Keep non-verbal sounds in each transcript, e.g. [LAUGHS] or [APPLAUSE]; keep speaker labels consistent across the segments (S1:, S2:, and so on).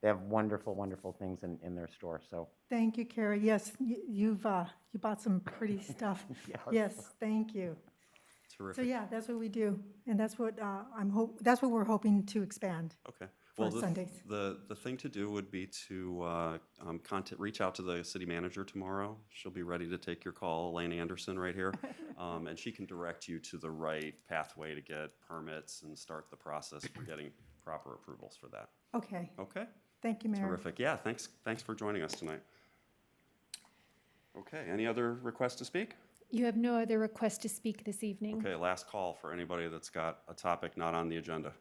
S1: they have wonderful, wonderful things in, in their store. So
S2: Thank you, Carrie. Yes, y- you've, uh, you bought some pretty stuff. Yes, thank you. So
S3: Terrific.
S2: yeah, that's what we do, and that's what uh, I'm hope, that's what we're hoping to expand.
S3: Okay. Well, the-
S2: Sundays.
S3: The, the thing to do would be to uh, um, contact, reach out to the city manager tomorrow. She'll be ready to take your call, Elaine Anderson,
S2: [LAUGHS]
S3: right here. Um, And she can direct you to the right pathway to get permits and start the process for getting proper approvals for that.
S2: Okay,
S3: Okay?
S2: thank you, Mayor.
S3: Terrific. Yeah, thanks, thanks for joining us tonight. Okay, any other requests to speak?
S4: You have no other request to speak this evening.
S3: Okay, last call for anybody that's got a topic not on the agenda.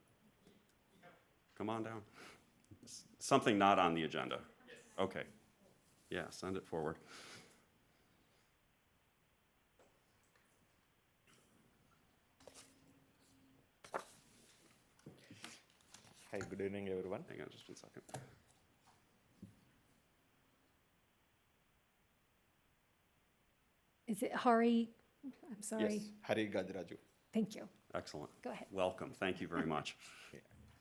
S3: Come on down. S- Something not on the agenda? Yes. Okay. Yeah, send it forward.
S5: Hi, good evening, everyone.
S3: Hang on just one second.
S4: Is it Hari? I'm sorry.
S5: Yes, Hari Gajraju.
S4: Thank you.
S3: Excellent.
S4: Go ahead.
S3: Welcome. Thank you
S4: [LAUGHS]
S3: very much.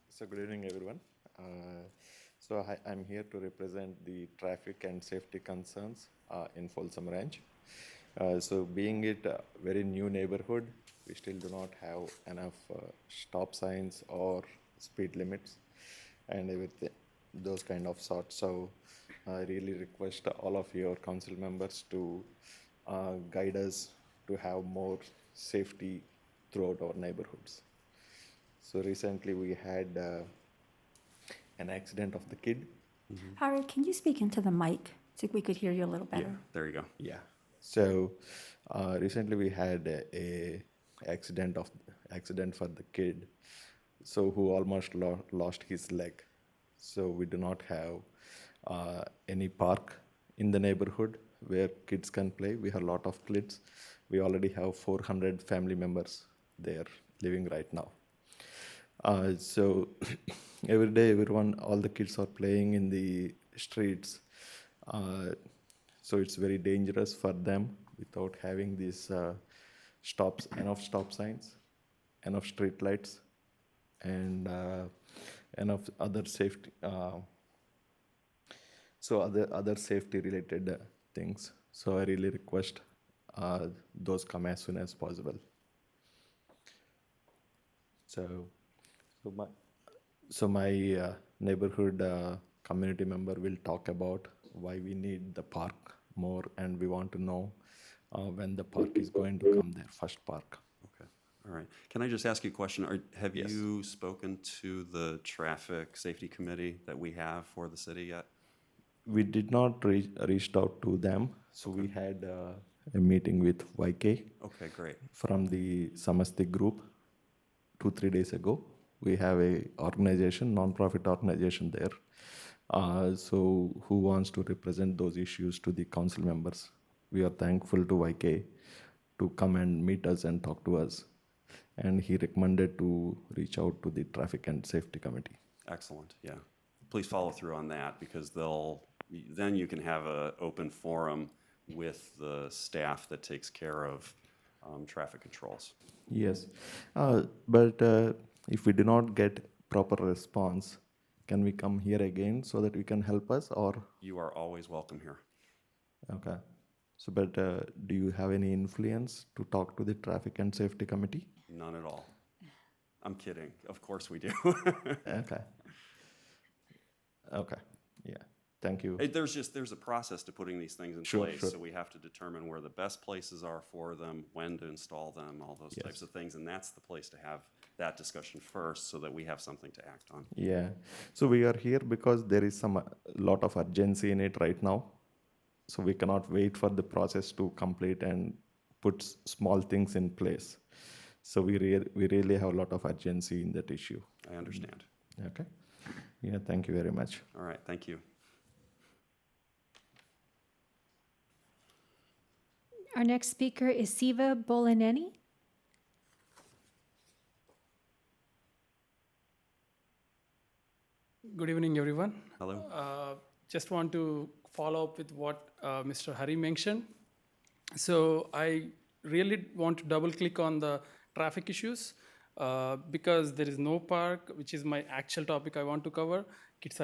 S5: So, good evening, everyone. Uh, so, hi, I'm here to represent the traffic and safety concerns uh, in Folsom Ranch. Uh, so, being it a very new neighborhood, we still do not have enough uh, stop signs or speed limits and everything, those kind of sorts. So, I really request all of your council members to uh, guide us to have more safety throughout our neighborhoods. So recently we had uh, an accident of the kid.
S6: Harry, can you speak into the mic so we could hear you a little better?
S3: There you go.
S5: Yeah. So uh, recently we had a, a accident of accident for the kid. So who almost lo- lost his leg. So we do not have uh, any park in the neighborhood where kids can play. We have a lot of kids. We already have 400 family members there living right now. Uh, so [COUGHS] every day, everyone, all the kids are playing in the streets. Uh, so it's very dangerous for them without having these uh, stops, enough stop signs, enough street lights, and uh, enough other safety. Uh, so other other safety related uh, things. So I really request uh, those come as soon as possible. So, so my, so my uh, neighborhood uh, community member will talk about why we need the park more, and we want to know uh, when the park is going to come there, first park.
S3: Okay. All right. Can I just ask you a question? Are, have
S5: Yes.
S3: you spoken to the traffic safety committee that we have for the city yet?
S5: We did not reach reached out to them, so we had uh, a meeting with YK
S3: Okay, great.
S5: from the Samasti group two three days ago. We have a organization, non-profit organization there. Uh, so who wants to represent those issues to the council members? We are thankful to YK to come and meet us and talk to us. And he recommended to reach out to the traffic and safety committee.
S3: Excellent, yeah. Please follow through on that because they'll, then you can have an open forum with the staff that takes care of um, traffic controls.
S5: Yes, uh, but uh, if we do not get proper response, can we come here again so that you can help us or?
S3: You are always welcome here.
S5: Okay. So, but uh, do you have any influence to talk to the traffic and safety committee?
S3: None at all. I'm kidding. Of course we do. [LAUGHS]
S5: Okay. Okay. Yeah. Thank you.
S3: Hey, There's just, there's a process to putting these things in
S5: Sure,
S3: place.
S5: sure.
S3: So we have to determine where the best places are for them, when to install them, all those types of things. And that's the place to have that discussion first so that we have something to act on.
S5: Yeah. So we are here because there is some uh, lot of urgency in it right now. So we cannot wait for the process to complete and put s- small things in place. So we rea- we really have a lot of urgency in that issue.
S3: I understand.
S5: Okay. Yeah. Thank you very much.
S3: All right, thank you.
S4: Our next speaker is Siva Bolaneni.
S7: Good evening, everyone.
S3: Hello?
S7: Uh, Just want to follow up with what uh, Mr. Hari mentioned. So I really want to double click on the traffic issues uh, because there is no park, which is my actual topic I want to cover. Kids